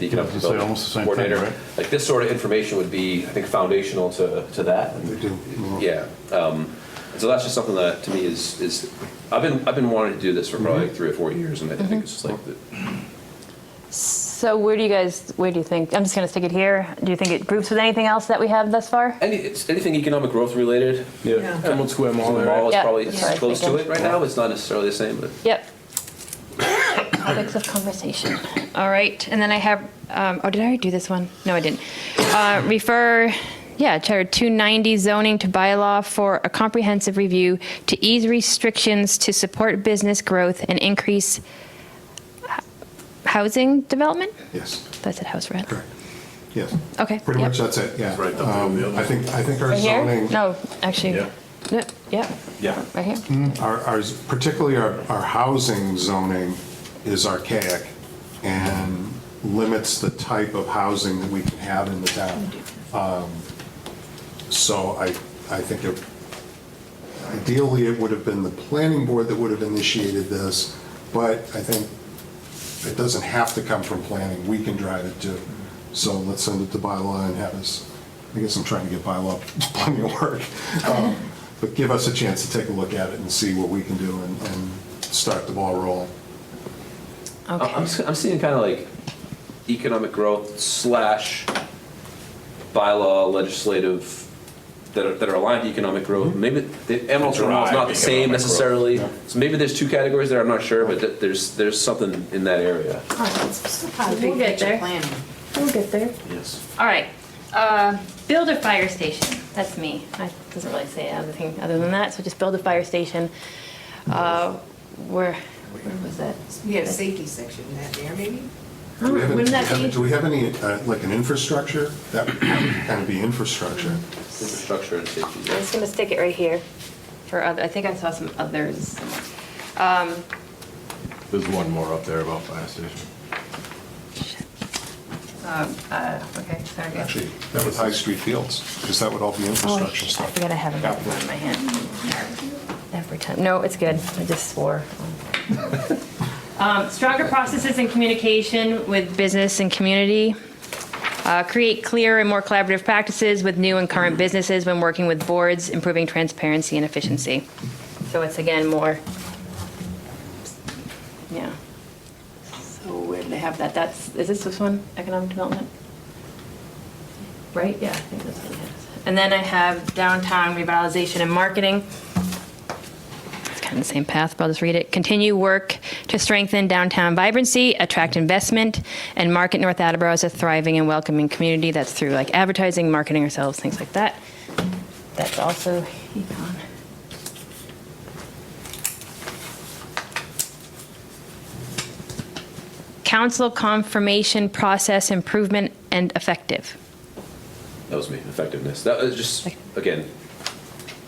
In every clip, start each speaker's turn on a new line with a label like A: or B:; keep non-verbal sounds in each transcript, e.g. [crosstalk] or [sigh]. A: the economic
B: I was gonna say
A: development
B: almost the same thing,
A: coordinator.
B: right?
A: Like this sort of information would be, I think, foundational to, to that.
B: They do. Mm-hmm.
A: Yeah. Um, so that's just something that to me is, is, I've been, I've been wanting to do this for probably
B: Mm-hmm.
A: like three or four years and I
C: Mm-hmm.
A: think it's just like, the-
C: So where do you guys, where do you think, I'm just going to stick it here. Do you think it groups with anything else that we have thus far?
A: any, it's anything economic growth related.
D: Yeah.
E: Yeah, Emerald Square Mall,
A: The
E: right?
A: mall is
C: Yeah,
A: probably
C: that's what I was
A: close to it
C: thinking.
A: right now. It's not necessarily the same, but
C: Yep. Topics of conversation. All right, and then I have, um, oh, did I already do this one? No, I didn't. Uh, refer, yeah, Charter 290 zoning to bylaw for a comprehensive review to ease restrictions to support business growth and increase h- housing development?
B: Yes,
C: That's at house rent.
B: correct. Yes.
C: Okay,
B: Pretty
C: yep.
B: much that's it, yeah.
D: Right up there on the
B: Um,
D: other
B: I think, I think our
C: Right here?
B: zoning,
C: No, actually,
D: Yeah.
C: no, yeah,
D: Yeah.
C: right here.
B: our, our- particularly our, our housing zoning is archaic and limits the type of housing that we can have in the town. Um, So I, I think it- ideally, it would have been the planning board that would have initiated this, but I think it doesn't have to come from planning, we can drive it too. So let's send it to bylaw and have us, I guess I'm trying to get bylaw [laughs] plenty of work. Um, But give us a chance to take a look at it and see what we can do and, and start the ball rolling.
A: I- I'm,
C: Okay,
A: s- I'm seeing kind of like economic growth slash bylaw legislative that are, that are aligned to economic growth. Maybe the Emerald Terminal is not the
D: Mm-hmm. Drive
A: same
D: economic
A: necessarily. So maybe there's two categories there, I'm not sure, but th- there's, there's something in that area.
C: We'll
F: Big
C: get
F: picture
C: there.
F: planning.
C: we'll get there.
A: Yes.
C: All right, uh, build a fire station, that's me. I doesn't really say anything other than that, so just build a fire station. Uh, Where, where was that?
F: We have a safety section in that there, maybe?
B: Do we have any-
C: Oh, Wouldn't that
B: have-
C: be-
B: Do we have any, uh, like an infrastructure? That would kind of be infrastructure.
A: Infrastructure and safety.
C: I'm
A: yeah.
C: just gonna stick it right here for other, I think I saw some others. Um,
D: There's one more up there about fire station.
C: um, uh, Okay, sorry. guys.
B: Actually, that was High Street Fields, because that would all be
C: Oh, I
B: infrastructure
C: I
B: stuff.
C: forgot I have a
B: Yeah.
C: map in my hand. Every time, no, it's good, I just swore. [laughs] Um, Stronger processes and communication with business and community. Uh, Create clear and more collaborative practices with new and current businesses when working with boards, improving transparency and efficiency. So it's again more, yeah. So where do they have that? That's, is this this one, economic development? Right, yeah, I think that's what it is. And then I have downtown revitalization and marketing. It's kind of the same path, but I'll just read it. Continue work to strengthen downtown vibrancy, attract investment, and market North Attleboro as a thriving and welcoming community. That's through like advertising, marketing ourselves, things like that. That's also econ. Council confirmation process improvement and effective.
A: That was me, effectiveness. That was just, again,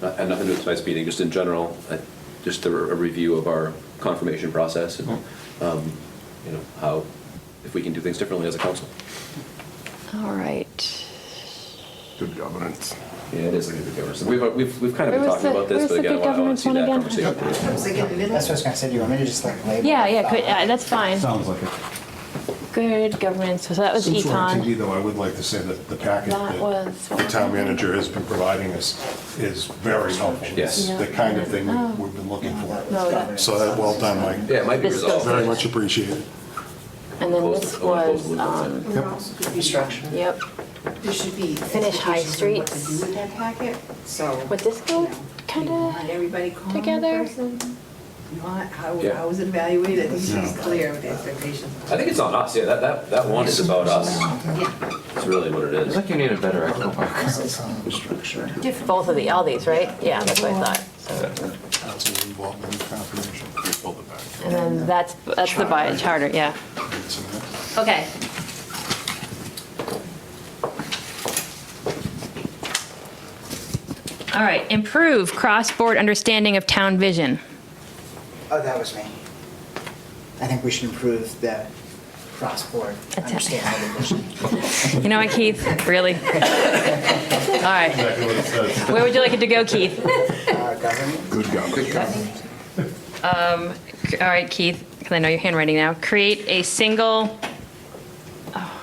A: not- had nothing to do with tonight's meeting, just in general, I- just a a review of our confirmation process and, um, you know, how, if we can do things differently as a council.
C: All right.
D: Good governance.
A: Yeah, it is a good governance. We've, we've, we've kind of been
C: Where was
A: talking
C: the-
A: about this,
C: where's
A: but
C: the
A: again, I
C: good
A: want I want to see that
C: governance one again?
A: conversation.
F: Is it in the middle?
G: That's what I was gonna say, do you want me to just like label?
C: Yeah,
G: it?
C: yeah, uh, good, yeah, that's fine.
H: Sounds like it.
C: Good governance, so that was
B: Since we're on
C: econ.
B: TV, though, I would like to say that the packet
C: That
B: that
C: was-
B: the town manager has been providing us is very helpful.
A: Yes.
B: It's The kind of thing we- we've been looking
C: No,
B: for.
C: that-
B: So that, well done, Mike.
A: Yeah, it might be
C: This
A: resolved.
B: Very much appreciated.
C: And then
A: Close-
C: this
B: Oh,
A: I wanna close
C: was,
A: the loop on
C: um,
F: And there also could be-
G: Structure.
C: yep,
F: There should be.
C: Finish High
F: expectations on what to
C: Streets.
F: do with that packet, so.
C: Would this go
F: you know,
C: kinda
F: want everybody calm
C: together?
F: first and you want- How,
A: Yeah.
F: how was it evaluated? I think she's clear with the expectations.
A: I think it's on us, yeah, that, that, that one is about us.
F: Yeah.
A: It's really what it is.
E: you need a better echo box.
G: Structure.
C: both of the, all these, right? Yeah, that's what I thought. So-
B: Council involvement and confirmation. Pull it back.
C: And then that's, that's the by charter, yeah.
B: It's in there.
C: Okay. All right, improve cross-board understanding of town vision.
G: Oh, that was me. I think we should improve the cross-board
C: it.
G: understanding of the
C: [laughs]
G: vision.
C: You know what, Keith?
B: [laughs]
C: Really? All right. Where would you like it to go, Keith?
G: Uh, Government,
B: Good government.
C: All right, Keith, because I know your handwriting now. Create a single